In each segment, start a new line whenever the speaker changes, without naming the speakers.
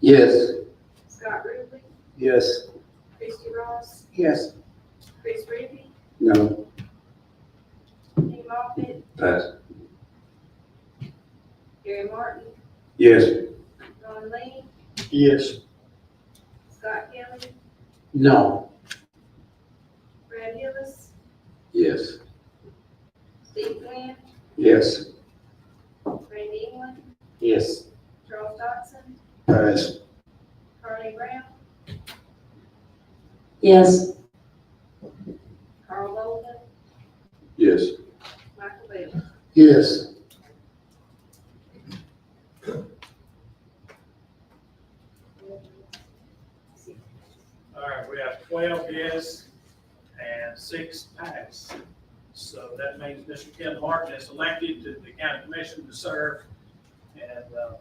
Yes.
Scott Ruble,
Yes.
Christie Ross,
Yes.
Chris Reapy,
No.
Kenny Moffitt,
Pass.
Gary Martin,
Yes.
Ron Lee,
Yes.
Scott Kelly,
No.
Brad Hillis,
Yes.
Steve Glenn,
Yes.
Randy England,
Yes.
Charles Dodson,
Pass.
Carly Brown,
yes,
Carl Bolden,
Yes.
Michael Bell.
Yes.
All right, we have twelve yes and six pass. So that means Mr. Ken Martin is elected to the county commission to serve in the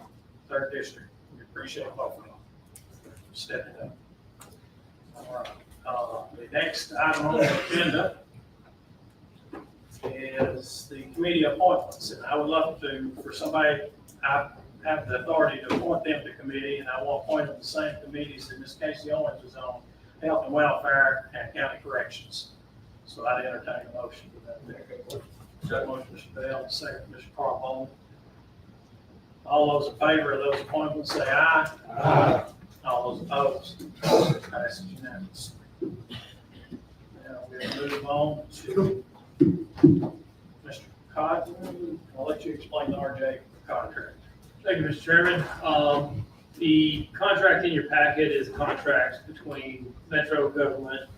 third district. We appreciate both of them stepping up. All right, uh, The next item on the agenda is the committee appointments. And I would love to, for somebody, I have the authority to appoint them to committee, and I will appoint them to the same committees that Ms. Casey Owens was on, Health and Welfare and County Corrections. So I'd entertain a motion to that. effect. So motion, Mr. Bell, second, Mr. Carbone. All those in favor of those appointments, say aye. Aye. All those opposed, motion passes unanimously. Now we'll move on to Mr. Cotton. I'll let you explain the RJ contract.
Thank you, Mr. Chairman. Um, The contract in your packet is contracts between Metro Government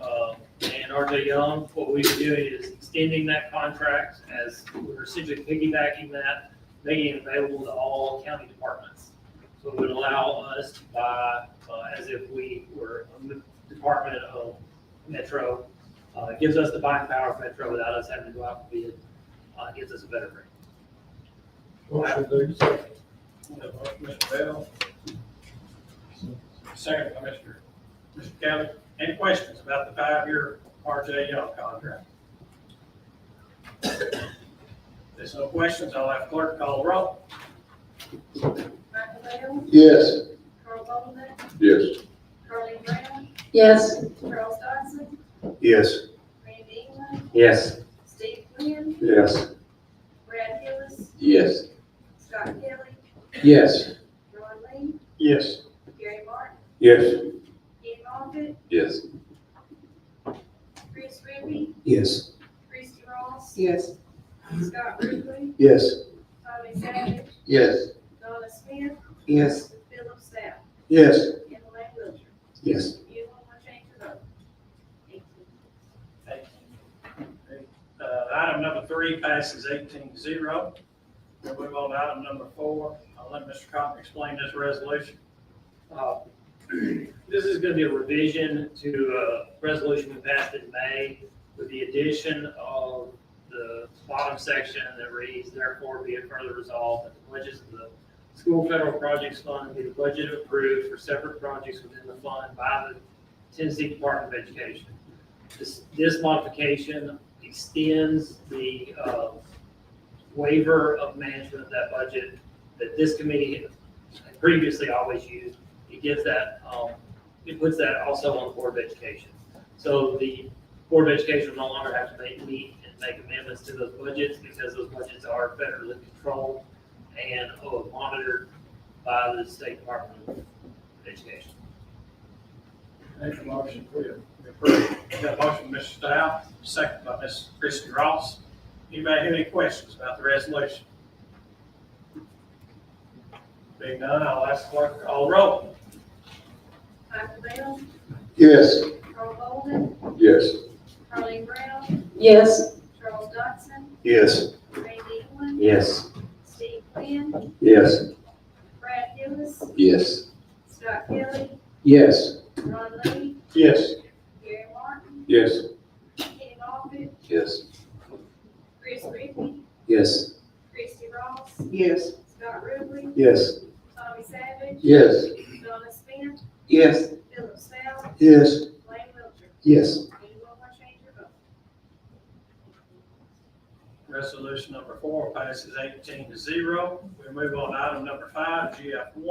uh, and RJ Young. What we're doing is extending that contract as we're essentially piggybacking that, making it available to all county departments. So it would allow us to buy uh, as if we were a m- department of Metro. Uh, It Gives us the buying power of Metro without us having to go out and bid. Uh, it Gives us a better rate.
Motion, please. Mr. Bell. Second by Mr. Mr. Kelly. Any questions about the five-year RJ Young contract? There's no questions. I'll have clerk call the roll.
Michael Bell,
Yes.
Carl Bolden,
Yes.
Carly Brown,
yes,
Charles Dodson,
Yes.
Randy England,
Yes.
Steve Glenn,
Yes.
Brad Hillis,
Yes.
Scott Kelly,
Yes.
Ron Lee,
Yes.
Gary Martin,
Yes.
Kenny Moffitt,
Yes.
Chris Reapy,
Yes.
Christie Ross,
yes,
Scott Ruble,
Yes.
Tommy Savage,
Yes.
Donna Smith,
yes,
Philip Stout,
Yes.
and Elaine Wilcher.
Yes.
You want to change your vote? Thank you.
Uh, item number three passes eighteen to zero. We'll move on to item number four. I'll let Mr. Cotton explain this resolution.
Uh, This is going to be a revision to a resolution we passed in May with the addition of the bottom section that reads, therefore be it further resolved that the budgets of the school federal projects fund be the budget approved for separate projects within the fund by the Tennessee Department of Education. This, this modification extends the uh, waiver of management of that budget that this committee had previously always used it gives that, um, it puts that also on the Board of Education. So the Board of Education will no longer have to make, meet and make amendments to those budgets because those budgets are federally controlled and uh, monitored by the State Department of Education.
Make a motion, we approve. Got a motion, Mr. Stout, second by Ms. Christie Ross. Anybody have any questions about the resolution? Being none, I'll ask clerk to call the roll.
Michael Bell,
Yes.
Carl Bolden,
Yes.
Carly Brown,
yes,
Charles Dodson,
Yes.
Randy England,
Yes.
Steve Glenn,
Yes.
Brad Hillis,
Yes.
Scott Kelly,
Yes.
Ron Lee,
Yes.
Gary Martin,
Yes.
Kenny Moffitt,
Yes.
Chris Reapy,
Yes.
Christie Ross,
yes.
Scott Ruble,
Yes.
Tommy Savage,
Yes.
Donna Smith,
Yes.
Philip Stout,
Yes.
Lane Wilcher.
Yes.
Anyone want to change your vote?
Resolution number four passes eighteen to zero. We move on to item number five, GF one.